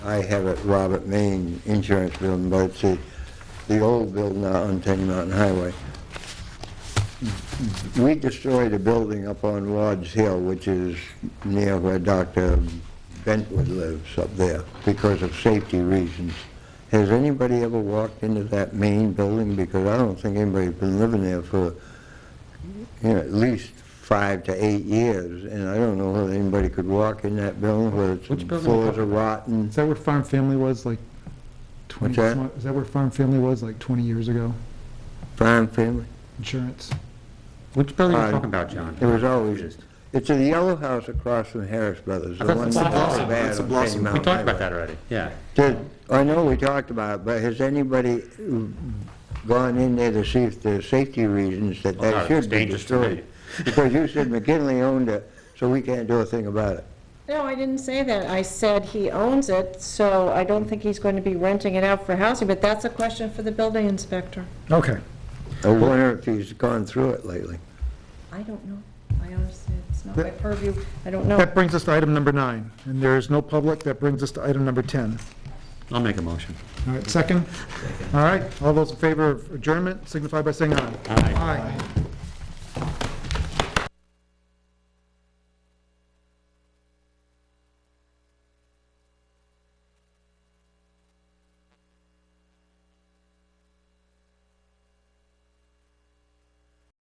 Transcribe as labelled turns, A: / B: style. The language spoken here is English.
A: I have at Robert Main Insurance Building, but it's the, the old building out on Tenny Mountain Highway. We destroyed a building up on Lodge Hill, which is near where Dr. Bentwood lives up there, because of safety reasons. Has anybody ever walked into that main building? Because I don't think anybody's been living there for, you know, at least five to eight years, and I don't know whether anybody could walk in that building, whether
B: Which
A: its
B: building are you
A: floors are
B: talking
A: rotten.
B: Is that where Farm Family was like 20,
A: What's
B: some- is that where Farm Family was like 20 years ago?
A: Brown family?
B: Insurance.
C: Which building are
A: Uh,
C: you talking about, John?
A: It was always, it's the yellow house across from Harris Brothers.
C: I
A: the
C: thought
A: one
C: it's
A: that's all
C: Blossom.
A: bad
C: It's a
A: on
C: Blossom.
A: Tenny
C: We
A: Mountain
C: talked about
A: Highway.
C: that already, yeah.
A: Did- I know we talked about it, but has anybody gone in there to see if there's safety reasons that
C: Well,
A: that
C: no,
A: should
C: Oh, it's
A: be
C: dangerous to me.
A: destroyed? Because you said McKinley owned it, so we can't do a thing about it.
D: No, I didn't say that. I said he owns it, so I don't think he's going to be renting it out for housing, but that's a question for the building inspector.
B: Okay.
A: I wonder if he's gone through it lately.
D: I don't know. I honestly, it's not my purview. I don't know.
B: That brings us to item number nine, and there is no public. That brings us to item number 10.
C: I'll make a motion.
B: All right, second? All right, all those in favor of adjournment signify by saying aye. Aye.